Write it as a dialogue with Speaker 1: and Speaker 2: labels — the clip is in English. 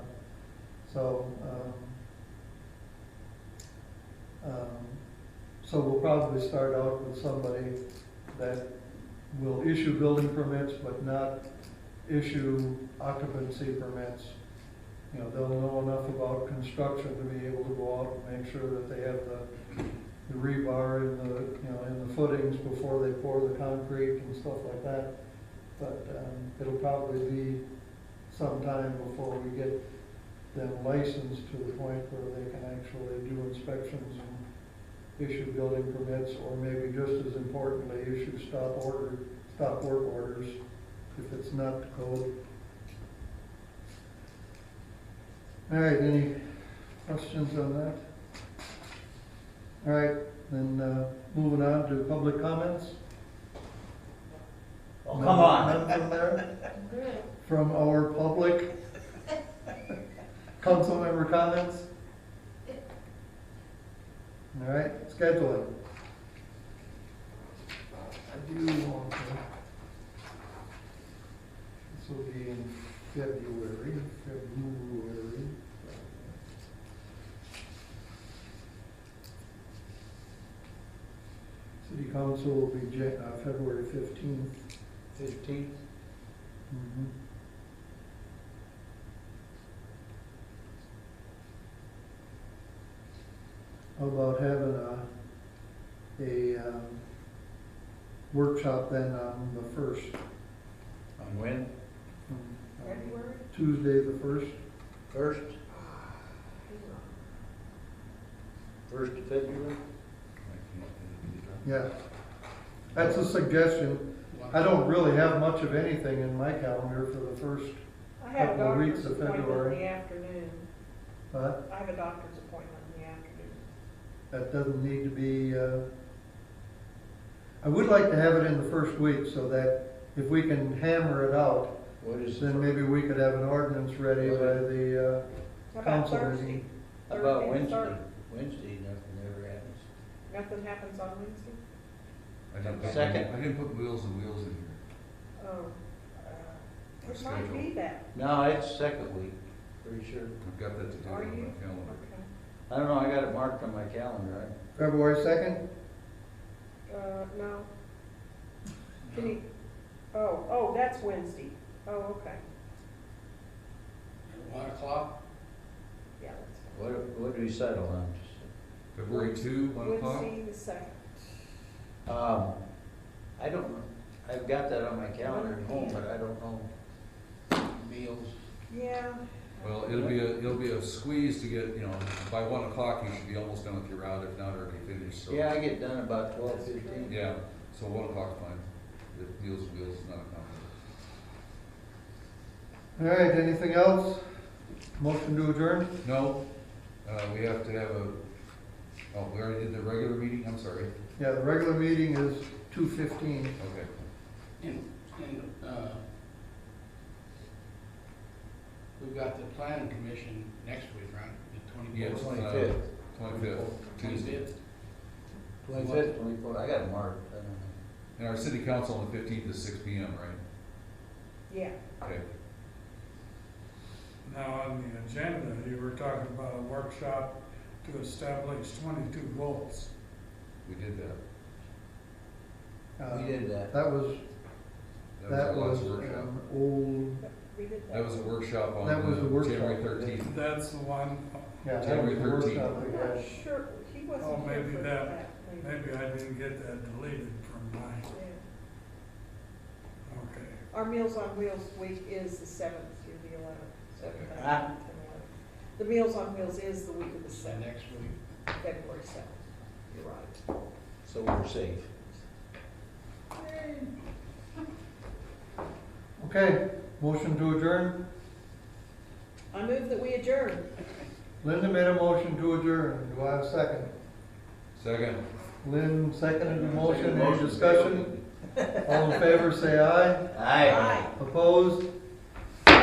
Speaker 1: So, um, um, so we'll probably start out with somebody that will issue building permits, but not issue occupancy permits. You know, they'll know enough about construction to be able to go out and make sure that they have the the rebar in the, you know, in the footings before they pour the concrete and stuff like that. But, um, it'll probably be some time before we get them licensed to the point where they can actually do inspections and issue building permits, or maybe just as importantly, issue stop order, stop work orders if it's not the code. All right, any questions on that? All right, then, uh, moving on to public comments.
Speaker 2: Oh, come on.
Speaker 1: None from there? From our public? Council member comments? All right, scheduling. I do want to. This will be in February, February. City council will be Jan, uh, February fifteenth.
Speaker 2: Fifteenth?
Speaker 1: Mm-hmm. How about having a, a, um, workshop then on the first?
Speaker 2: On when?
Speaker 1: um, Tuesday, the first,
Speaker 2: First? First of February?
Speaker 1: yeah. That's a suggestion. I don't really have much of anything in my calendar for the first,
Speaker 3: I have a
Speaker 1: Couple of weeks
Speaker 3: doctor's
Speaker 1: of
Speaker 3: appointment in
Speaker 1: February.
Speaker 3: the afternoon.
Speaker 1: but
Speaker 3: I have a doctor's appointment in the afternoon.
Speaker 1: that doesn't need to be, uh, I would like to have it in the first week so that if we can hammer it out,
Speaker 2: What is the
Speaker 1: Then
Speaker 2: fir-
Speaker 1: maybe we could have an ordinance ready by the
Speaker 3: How
Speaker 1: uh,
Speaker 3: about
Speaker 1: council
Speaker 3: Thursday?
Speaker 1: meeting.
Speaker 2: How about
Speaker 3: Thursday,
Speaker 2: Wednesday?
Speaker 3: third.
Speaker 2: Wednesday, nothing ever happens.
Speaker 3: Nothing happens on Wednesday?
Speaker 4: I didn't put-
Speaker 2: Second.
Speaker 4: I didn't put wheels and wheels in here.
Speaker 3: Oh, uh, it might be
Speaker 4: Schedule.
Speaker 3: that,
Speaker 2: No, it's second week, pretty sure.
Speaker 4: I've got that to do
Speaker 3: Are
Speaker 4: on
Speaker 3: you?
Speaker 4: my calendar.
Speaker 3: okay.
Speaker 2: I don't know, I got it marked on my calendar.
Speaker 1: February second?
Speaker 3: Uh, no, can you, oh, oh, that's Wednesday. Oh, okay,
Speaker 5: One o'clock?
Speaker 3: yeah, that's fine.
Speaker 2: What, what do we settle on?
Speaker 4: February two, one o'clock?
Speaker 3: Wednesday the second.
Speaker 2: Um, I don't know. I've got that on my calendar at home, but I don't know.
Speaker 5: Meals.
Speaker 3: Yeah.
Speaker 4: Well, it'll be a, it'll be a squeeze to get, you know, by one o'clock, you should be almost done with your route, if not already finished, so.
Speaker 2: Yeah, I get done about twelve fifteen.
Speaker 4: Yeah, so one o'clock's fine. The wheels and wheels is not a conflict.
Speaker 1: All right, anything else? Motion to adjourn?
Speaker 4: No, uh, we have to have a, oh, we already did the regular meeting, I'm sorry.
Speaker 1: Yeah, the regular meeting is two fifteen.
Speaker 4: Okay,
Speaker 5: And, and, uh, we've got the planning commission next week, right? The
Speaker 4: yes,
Speaker 5: twenty-fourth?
Speaker 4: uh,
Speaker 2: Twenty-fifth.
Speaker 4: twenty-fifth, Tuesday.
Speaker 5: Twenty-fifth?
Speaker 2: Twenty-fifth, twenty-fourth. I got it marked. I don't know.
Speaker 4: And our city council on the fifteenth is six P M, right?
Speaker 3: Yeah,
Speaker 4: Okay,
Speaker 6: Now, on the agenda, you were talking about a workshop to establish twenty-two goals.
Speaker 4: we did that.
Speaker 2: We did that.
Speaker 1: Uh, That was, that
Speaker 4: our last
Speaker 1: was um,
Speaker 4: workshop.
Speaker 1: an old,
Speaker 3: we did that.
Speaker 4: That was a workshop on
Speaker 1: That was a
Speaker 4: uh,
Speaker 1: workshop.
Speaker 4: January thirteenth.
Speaker 6: That's the one,
Speaker 1: yeah, that was
Speaker 4: January
Speaker 1: the
Speaker 4: 13th.
Speaker 1: workshop
Speaker 3: I'm
Speaker 1: we
Speaker 3: not
Speaker 1: had.
Speaker 3: sure, he wasn't
Speaker 6: Oh,
Speaker 3: here
Speaker 6: maybe
Speaker 3: for
Speaker 6: that-
Speaker 3: that. maybe.
Speaker 6: maybe I didn't get that deleted from my,
Speaker 3: Yeah.
Speaker 6: okay.
Speaker 3: Our Meals on Wheels week is the seventh through the eleventh, seventh,
Speaker 2: Okay.
Speaker 3: eighth, and eleventh. The Meals on Wheels is the week of the
Speaker 5: So
Speaker 3: seventh,
Speaker 5: next week.
Speaker 3: February seventh. You're right.
Speaker 2: So we're safe.
Speaker 1: Okay, motion to adjourn.
Speaker 3: I move that we adjourn.
Speaker 1: Linda made a motion to adjourn. Do I have a second?
Speaker 4: Second.
Speaker 1: Lynn seconded the motion.
Speaker 2: Second
Speaker 1: Any
Speaker 2: motion.
Speaker 1: discussion? All in favor, say aye.
Speaker 2: Aye.
Speaker 3: Aye.
Speaker 1: Opposed?